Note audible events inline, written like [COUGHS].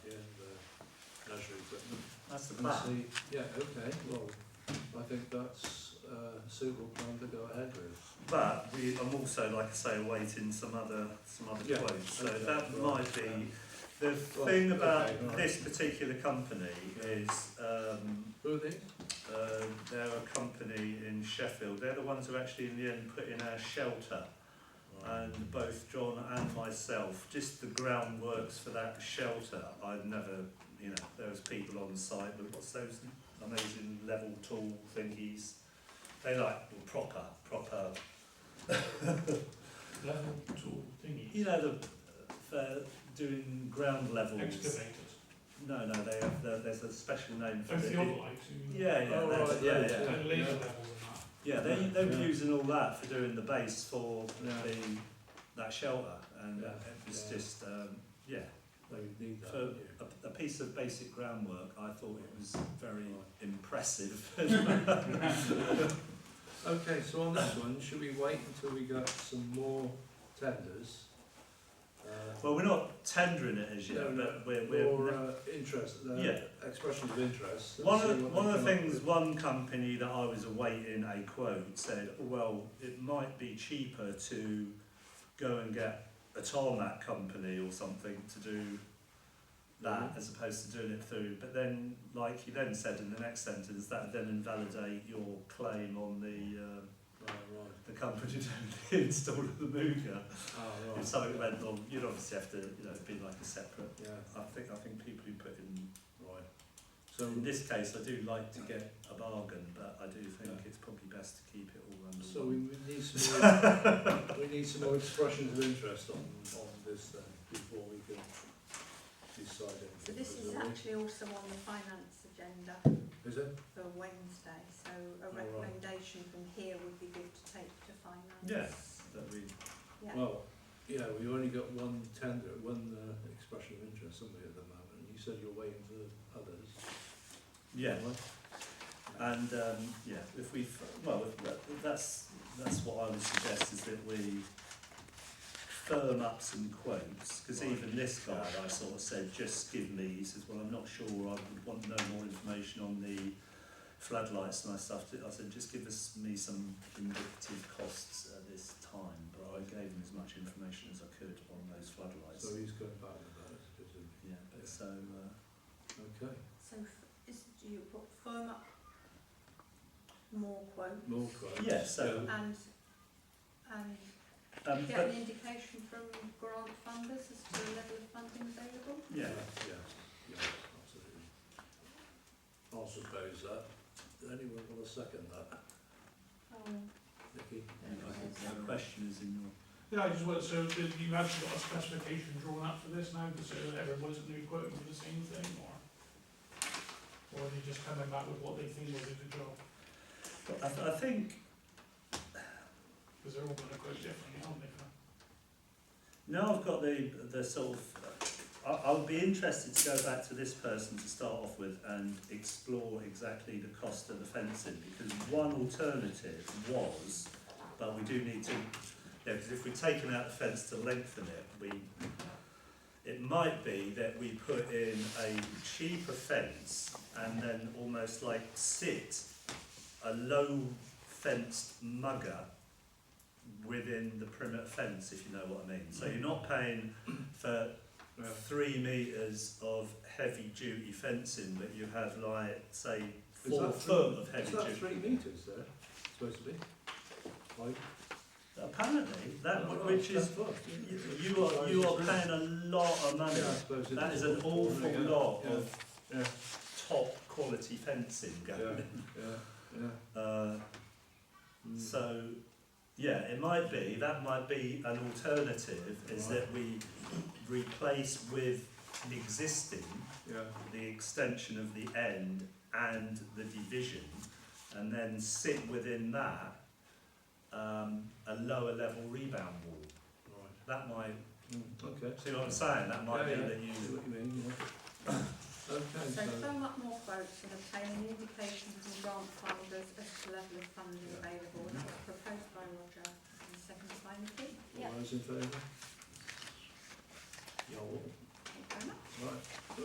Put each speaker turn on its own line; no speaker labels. leisure equipment.
That's the
And
plan.
see, yeah, okay, well, I think that's a suitable plan to go ahead with.
But we, I'm also, like I say, awaiting some other some other
Yeah,
quotes. So
okay,
that
right,
might be
um,
the
right,
thing about
okay, right.
this particular company is um,
Who are these?
uh, they're a company in Sheffield. They're the ones who actually in the end put in our shelter. And both John and myself, just the groundworks for that shelter, I'd never, you know, there was people on site, but what's those amazing level tool thingies? They like proper, proper
Level tool thingy.
You know, the, for doing ground levels.
Excavators.
No, no, they have, there- there's a special name for
That's
it.
the other lights. you mean.
Yeah, yeah,
Oh,
that's-
right,
yeah,
those,
yeah.
yeah.
And laser levels and that.
Yeah, they, they were
Yeah.
using all that for doing the base for
Yeah.
the, that shelter. And uh,
Yeah.
it was
Yeah.
just, um, yeah,
They need that.
for
don't you?
a, a piece of basic groundwork, I thought it was very
Right.
impressive. [LAUGHS]
Okay, so on this one, should we wait until we got some more tenders? Uh,
Well, we're not tendering it as
No,
yet,
no.
but we're,
Or
we're
uh, interest, uh,
Yeah.
expressions of interest. and
One
see
of the,
what
one
they
of the
come up
things,
with.
one company that I was awaiting a quote said, well, it might be cheaper to go and get a tarmac company or something to do that
Mhm.
as opposed to doing it through. But then, like he then said in the next sentence, that would then invalidate your claim on the um
Right, right.
the company [LAUGHS] doing the install of the Mooga.
Ah,
If
right.
something went wrong, you'd obviously have to, you know, be like a separate.
Yeah,
I think I think people who put in
right. So,
In this case, I do like to get a bargain, but I do think it's probably best to keep it all under
so we
one.
we need
[LAUGHS]
some more, we need some more expressions of interest on, on this then, before we can decide anything.
So this is
Is it-
actually also on the finance agenda
Is it?
for Wednesday, so a
right.
recommendation from here would be good to take to finance.
Yes, that we,
Yeah.
Well, yeah, we've only got one tender, one uh, expression of interest, haven't we, at the moment? You said you're waiting for others.
yeah,
Right?
and um, yeah, if we, well, if that, that's that's what I would suggest is that we firm up some quotes because
Right.
even this guy, I sort of said, just give me. He says, well, I'm not sure. I would want no more information on the floodlights and I stuff. I said, just give us me some indicative costs at this time. But I gave him as much information as I could on those floodlights.
So he's going back with those, isn't he?
yeah, but so uh,
Okay,
So f- is, do you put firm up more quotes?
more quotes.
uh, yeah, so
And, and
um,
get
but,
an indication from grant funders as to the level of funding available?
yeah,
Yes, yes, absolutely. I'll suppose that. Anyone want to second that?
Um,
Nikki?
anyway, the question is in your.
Yeah, I just want, so did you actually got a specification drawn up for this now, so that everybody's going to be quoting for the same thing, or? Or are they just coming back with what they think will do the job,
But I, th- I think
because they're all going to quote differently, aren't they? for-
Now I've got the the sort of. I, I'll be interested to go back to this person to start off with and explore exactly the cost of the fencing because one alternative was, but we do need to. Yeah, because if we're taking out the fence to lengthen it, we. It might be that we put in a cheaper fence and then almost like sit a low fenced mugger within the perimeter fence, if you know what I mean. So you're not paying for three metres of heavy duty fencing, but you have like, say,
Is
four
that
foot of
Is
heavy
that
duty.
three metres there, supposed to be? Like,
Apparently, that
Oh,
which
that's
is
fucked,
you,
yeah.
you are you are paying a lot of money.
Yeah, I suppose it
That is an awful
Yeah,
lot
yeah,
of
Yeah,
top quality fencing going.
yeah, yeah, yeah.
Uh,
Mm.
So, yeah, it might be, that might be an alternative, is
Right.
that we replace with existing
Yeah,
the extension of the end and the division, and then sit within that um, a lower level rebound wall.
right.
That might,
Mm, Okay.
see what I'm saying, that might
Yeah,
be
yeah.
that you,
See what you mean, yeah. [COUGHS] Okay,
So
so,
firm up more quotes and obtain an indication from grant funders as to the level of funding available, and that was proposed by Roger and seconded by Nikki.
all those in favour?